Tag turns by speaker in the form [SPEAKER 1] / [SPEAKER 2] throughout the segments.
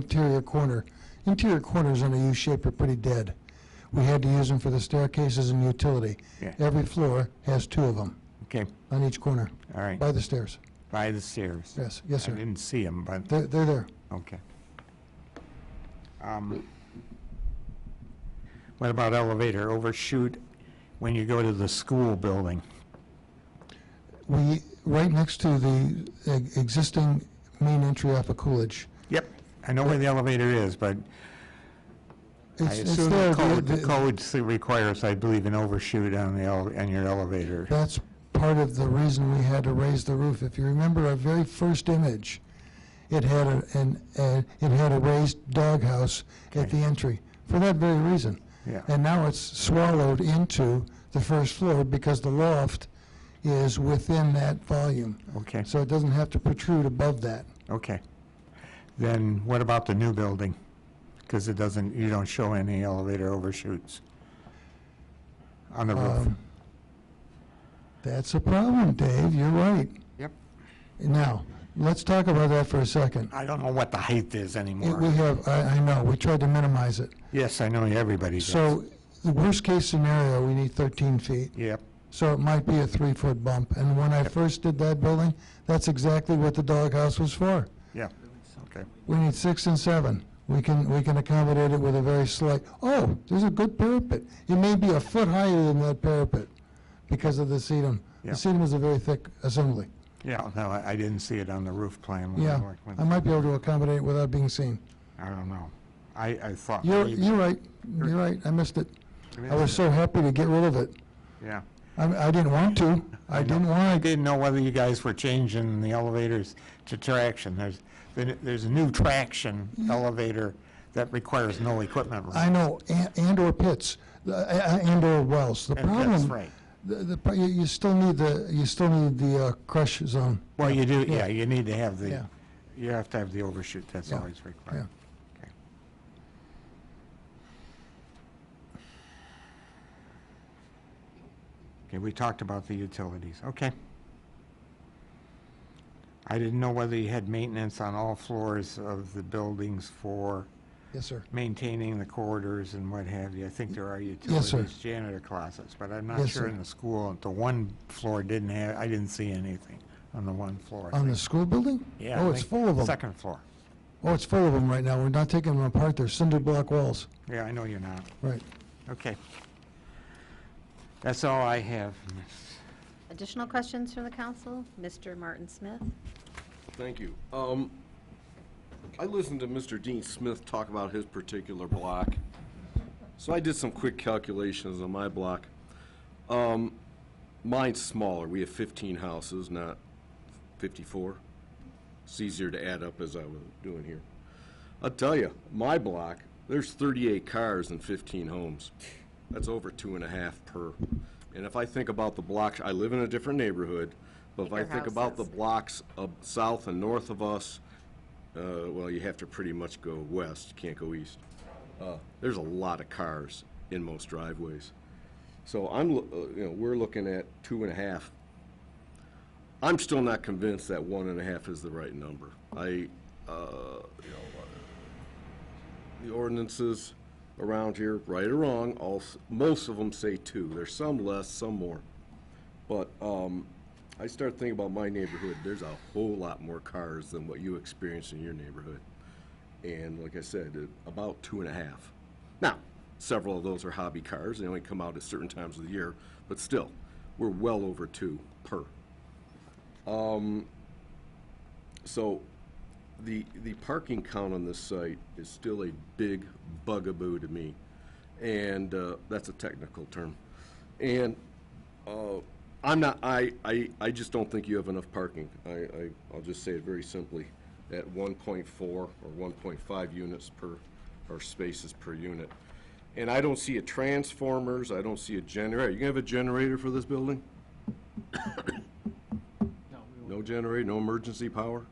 [SPEAKER 1] interior corner. Interior corners on a U shape are pretty dead. We had to use them for the staircases and utility.
[SPEAKER 2] Yeah.
[SPEAKER 1] Every floor has two of them
[SPEAKER 2] Okay,
[SPEAKER 1] on each corner
[SPEAKER 2] all right,
[SPEAKER 1] by the stairs.
[SPEAKER 2] by the stairs.
[SPEAKER 1] Yes, yes,
[SPEAKER 2] I
[SPEAKER 1] sir.
[SPEAKER 2] didn't see them, but,
[SPEAKER 1] They're, they're there.
[SPEAKER 2] okay. Um, What about elevator overshoot when you go to the school building?
[SPEAKER 1] We, right next to the e- existing main entry off of Coolidge.
[SPEAKER 2] Yep, I know where the elevator is, but I
[SPEAKER 1] It's- it's
[SPEAKER 2] assume
[SPEAKER 1] there,
[SPEAKER 2] the
[SPEAKER 1] the-
[SPEAKER 2] code, the
[SPEAKER 1] the-
[SPEAKER 2] code s- requires, I believe, an overshoot on the, ele- on your elevator.
[SPEAKER 1] That's part of the reason we had to raise the roof. If you remember our very first image, it had a, an, a, it had a raised doghouse at
[SPEAKER 2] Okay.
[SPEAKER 1] the entry for that very reason.
[SPEAKER 2] Yeah.
[SPEAKER 1] And now it's swallowed into the first floor because the loft is within that volume.
[SPEAKER 2] Okay,
[SPEAKER 1] So it doesn't have to protrude above that.
[SPEAKER 2] okay. Then what about the new building? Because it doesn't, you don't show any elevator overshoots on the roof.
[SPEAKER 1] Um, That's a problem, Dave, you're right.
[SPEAKER 2] Yep.
[SPEAKER 1] Now, let's talk about that for a second.
[SPEAKER 2] I don't know what the height is
[SPEAKER 1] It- We
[SPEAKER 2] anymore.
[SPEAKER 1] have, I, I know, we tried to minimize it.
[SPEAKER 2] Yes, I know everybody does.
[SPEAKER 1] So, the worst-case scenario, we need 13 feet,
[SPEAKER 2] Yep,
[SPEAKER 1] so it might be a three-foot bump. And when I first did that building, that's exactly what the doghouse was for.
[SPEAKER 2] yep, okay.
[SPEAKER 1] We need six and seven. We can, we can accommodate it with a very slight, oh, there's a good parapet. It may be a foot higher than that parapet because of the sedum.
[SPEAKER 2] Yeah.
[SPEAKER 1] The sedum is a very thick assembly.
[SPEAKER 2] Yeah, no, I I didn't see it on the roof plan when I
[SPEAKER 1] Yeah,
[SPEAKER 2] worked with
[SPEAKER 1] I
[SPEAKER 2] it.
[SPEAKER 1] might be able to accommodate it without being seen.
[SPEAKER 2] I don't know. I, I thought.
[SPEAKER 1] You're,
[SPEAKER 2] maybe-
[SPEAKER 1] you're right, you're right, I missed it. I was so happy to get rid of it.
[SPEAKER 2] Yeah.
[SPEAKER 1] I, I didn't want to, I didn't
[SPEAKER 2] I
[SPEAKER 1] want to.
[SPEAKER 2] didn't know whether you guys were changing the elevators to traction. There's, there- there's a new traction elevator that requires no equipment.
[SPEAKER 1] Mm-hmm. I know, a- and/or pits, uh, uh, and/or wells. The
[SPEAKER 2] And
[SPEAKER 1] problem.
[SPEAKER 2] that's right.
[SPEAKER 1] The, the, pro- you- you still need the, you still need the uh, crush zone.
[SPEAKER 2] Well, you do, yeah, you need to have the,
[SPEAKER 1] Yeah.
[SPEAKER 2] you have to have the overshoot, that's
[SPEAKER 1] Yeah.
[SPEAKER 2] always required. Okay. Okay, we talked about the utilities, okay. I didn't know whether you had maintenance on all floors of the buildings for
[SPEAKER 1] Yes, sir.
[SPEAKER 2] maintaining the corridors and what have you. I think there are
[SPEAKER 1] Yes, sir.
[SPEAKER 2] utilities, janitor closets, but I'm not
[SPEAKER 1] Yes,
[SPEAKER 2] sure
[SPEAKER 1] sir.
[SPEAKER 2] in the school, the one floor didn't have, I didn't see anything on the one floor. I
[SPEAKER 1] On the
[SPEAKER 2] think.
[SPEAKER 1] school building?
[SPEAKER 2] Yeah, I
[SPEAKER 1] Oh, it's
[SPEAKER 2] think
[SPEAKER 1] full of them.
[SPEAKER 2] Second floor.
[SPEAKER 1] Oh, it's full of them right now. We're not taking them apart. They're cinder block walls.
[SPEAKER 2] Yeah, I know you're not.
[SPEAKER 1] Right.
[SPEAKER 2] Okay. That's all I have.
[SPEAKER 3] Additional questions from the council? Mr. Martin Smith?
[SPEAKER 4] Thank you. Um, I listened to Mr. Dean Smith talk about his particular block, so I did some quick calculations on my block. Um, mine's smaller. We have 15 houses, not 54. It's easier to add up as I was doing here. I'll tell you, my block, there's 38 cars and 15 homes. That's over two and a half per. And if I think about the blocks, I live in a different neighborhood, but if I
[SPEAKER 3] Bigger
[SPEAKER 4] think about the
[SPEAKER 3] houses.
[SPEAKER 4] blocks of south and north of us, uh, well, you have to pretty much go west, you can't go east. Uh, there's a lot of cars in most driveways. So I'm, lo- uh, you know, we're looking at two and a half. I'm still not convinced that one and a half is the right number. I, uh, you know, uh, the ordinances around here, right or wrong, all, s- most of them say two. There's some less, some more. But, um, I start thinking about my neighborhood, there's a whole lot more cars than what you experience in your neighborhood. And like I said, uh, about two and a half. Now, several of those are hobby cars, they only come out at certain times of the year, but still, we're well over two per. Um, So, the, the parking count on this site is still a big bugaboo to me. And, uh, that's a technical term. And, uh, I'm not, I, I, I just don't think you have enough parking. I, I, I'll just say it very simply, at one point four or one point five units per, or spaces per unit. And I don't see a transformers, I don't see a generator. You gonna have a generator for this building? No generator, no emergency power?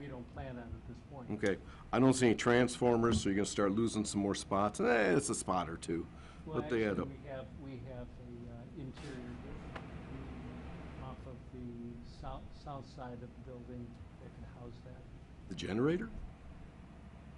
[SPEAKER 5] We don't plan on at this point.
[SPEAKER 4] Okay, I don't see any transformers, so you're gonna start losing some more spots. Eh, it's a spot or two,
[SPEAKER 5] Well,
[SPEAKER 4] but they add
[SPEAKER 5] actually,
[SPEAKER 4] up.
[SPEAKER 5] we have, we have a uh, interior building off of the south, south side of the building that can house that.
[SPEAKER 4] The generator?